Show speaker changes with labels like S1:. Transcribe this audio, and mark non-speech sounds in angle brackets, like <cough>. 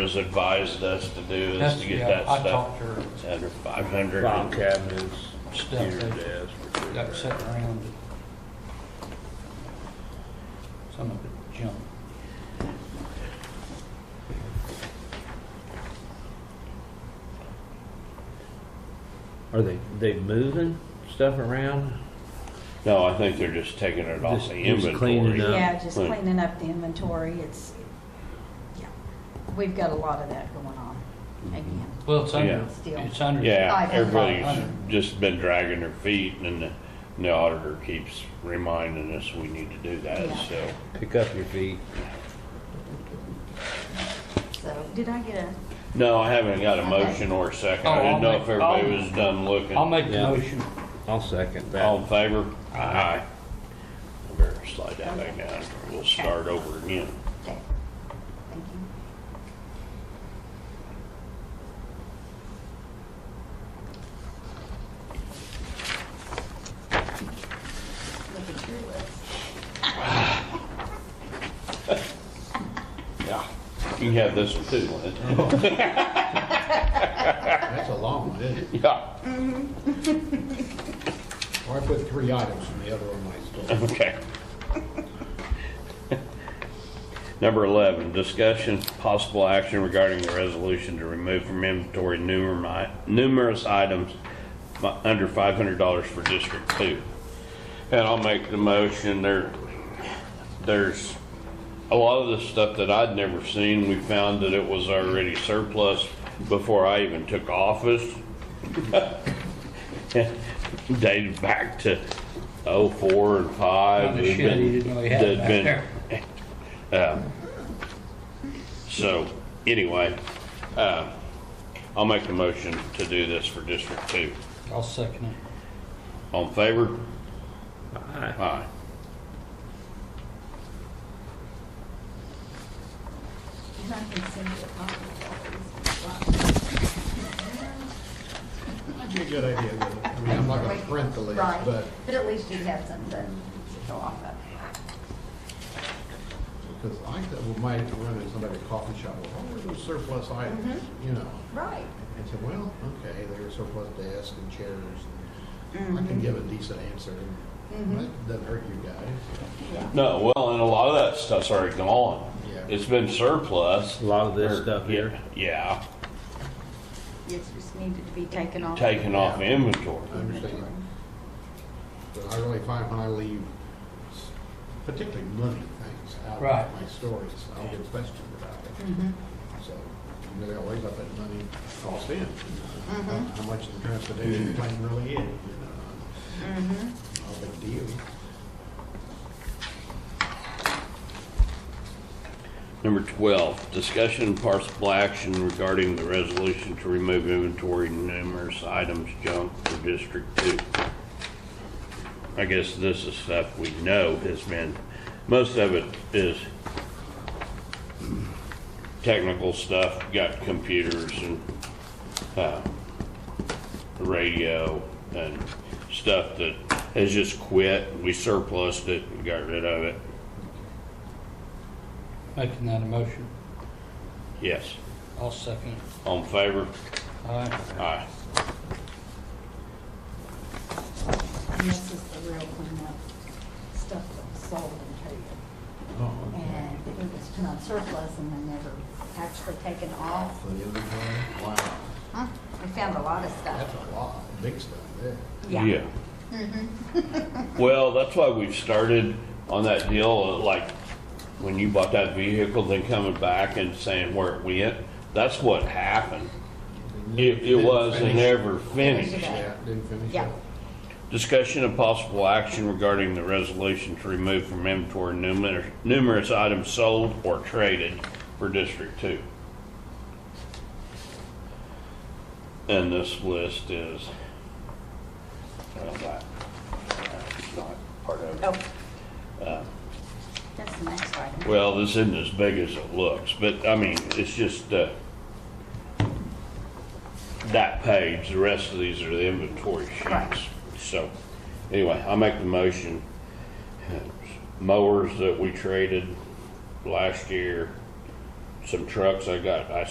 S1: has advised us to do is
S2: That's-
S1: to get
S2: yeah,
S1: that
S2: I
S1: stuff
S2: talked to her,
S1: under five hundred.
S3: File cabinets,
S2: Stuff eh?
S3: computer
S2: they-
S3: desk. refrigerator.
S2: got sitting around. Some of it junk.
S3: Are they, they moving stuff around?
S1: No, I think they're just taking it off
S3: Just-
S1: the
S3: just cleaning
S1: inventory.
S3: it up.
S4: Yeah, just
S1: Right.
S4: cleaning up the inventory, it's, yeah, we've got a lot of that going on again,
S2: Well, it's under,
S1: Yeah.
S4: Still.
S2: it's under.
S1: Yeah,
S4: Five hundred.
S1: everybody's
S2: Five hundred.
S1: just been dragging their feet and the, and the auditor keeps reminding us we need to do that,
S4: Yeah.
S1: so.
S3: Pick up your feet.
S4: so, did I get a,
S1: No, I haven't got a motion or a second. I
S2: Oh, I'll
S1: didn't know
S2: make-
S1: if everybody
S2: I'll-
S1: was done looking.
S2: I'll make the
S3: Yeah.
S2: motion.
S3: I'll second
S1: All
S3: that.
S1: in favor? Aye. I better slide that back down. We'll start over again.
S4: okay, thank you. Look at your list.
S1: Yeah. You can have this one too, Lynn.
S5: That's a long one, isn't it?
S2: <laughs>
S1: Yeah,
S5: Or I put three items in the other one myself.
S1: okay. Number 11, discussion, possible action regarding the resolution to remove from inventory numer- numerous items mi- under $500 for District 2. And I'll make the motion. There, there's a lot of the stuff that I'd never seen. We found that it was already surplus before I even took office. <laughs> Dated back to '04 and '05.
S2: Kind of shit he didn't know he had back there.
S1: So, anyway, uh, I'll make the motion to do this for District Two.
S2: I'll second it.
S1: All in favor?
S3: Aye.
S1: Aye.
S4: And I can send you a copy of
S5: That'd be a good idea, wouldn't it? I mean, I'm not
S4: all
S5: gonna
S4: these.
S5: print the list,
S4: Right,
S5: but
S4: But at least you have something to go off of.
S5: because I thought we might run into somebody at a coffee shop, well, oh, there's those surplus items,
S4: Mm-hmm.
S5: you know.
S4: Right.
S5: And say, well, okay, there are surplus desks and chairs. and
S4: Mm-hmm.
S5: I can give a decent answer. and That doesn't hurt you guys.
S1: No, well, and a lot of that stuff's already gone.
S5: Yeah.
S1: It's been surplus.
S3: A lot of this
S1: Or-
S3: stuff here.
S1: Yeah,
S4: It just needed to be taken off.
S1: taken off
S5: Yeah.
S1: inventory.
S5: I understand. But I really find when I leave, s- particularly money things out
S2: Right.
S5: of my stories, I'll get questioned about it. So, you know, they always up that money cost in, you know, how- how much the transportation plan really is, you know. Not a big deal.
S1: Number 12, discussion and possible action regarding the resolution to remove inventory numerous items junk for District 2. I guess this is stuff we know has been, most of it is technical stuff, got computers and uh, radio and stuff that has just quit. We surplused it and got rid of it.
S2: Making that a motion.
S1: Yes.
S2: I'll second it.
S1: All in favor?
S2: Aye.
S1: Aye.
S4: And this is the real cleanup, stuff that was sold and traded.
S5: Oh,
S4: And it was put on surplus and then never actually taken off.
S5: For the inventory, wow,
S4: Huh? We found a lot of
S5: that's
S4: stuff.
S5: a lot, big stuff there.
S1: Yeah. Well, that's why we've started on that deal, uh, like, when you bought that vehicle, then coming back and saying where it went, that's what happened. It, it
S5: Didn't
S1: wasn't
S5: finish.
S1: ever finished.
S5: Yeah, didn't finish
S4: Yeah.
S5: it.
S1: Discussion of possible action regarding the resolution to remove from inventory numerous, numerous items sold or traded for District Two. And this list is, well, that, that's not part of it.
S4: Oh. That's the next item.
S1: Well, this isn't as big as it looks, but I mean, it's just, uh, that page, the rest of these are the inventory
S4: Right.
S1: sheets. So, anyway, I make the motion. Mowers that we traded last year, some trucks I got, I